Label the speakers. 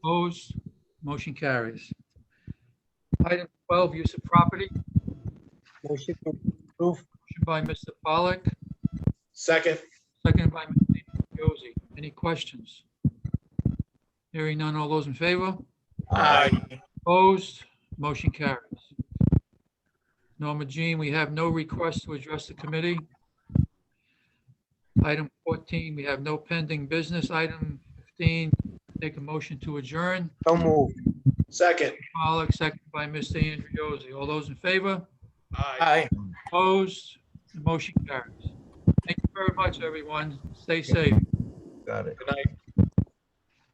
Speaker 1: Opposed? Motion carries. Item 12, use of property.
Speaker 2: Motion to approve.
Speaker 1: Motion by Mr. Pollak,
Speaker 3: Second,
Speaker 1: seconded by Mr. Josie. Any questions? Hearing none. All those in favor?
Speaker 3: aye.
Speaker 1: Opposed? Motion carries. Norma Jean, we have no request to address the committee. Item 14, we have no pending business. Item 15, take a motion to adjourn.
Speaker 2: So move.
Speaker 3: Second,
Speaker 1: Pollak, seconded by Mr. Andriozzi. All those in favor?
Speaker 3: aye.
Speaker 2: Aye.
Speaker 1: Opposed? The motion carries. Thank you very much, everyone. Stay safe.
Speaker 4: Got it.
Speaker 3: Good night.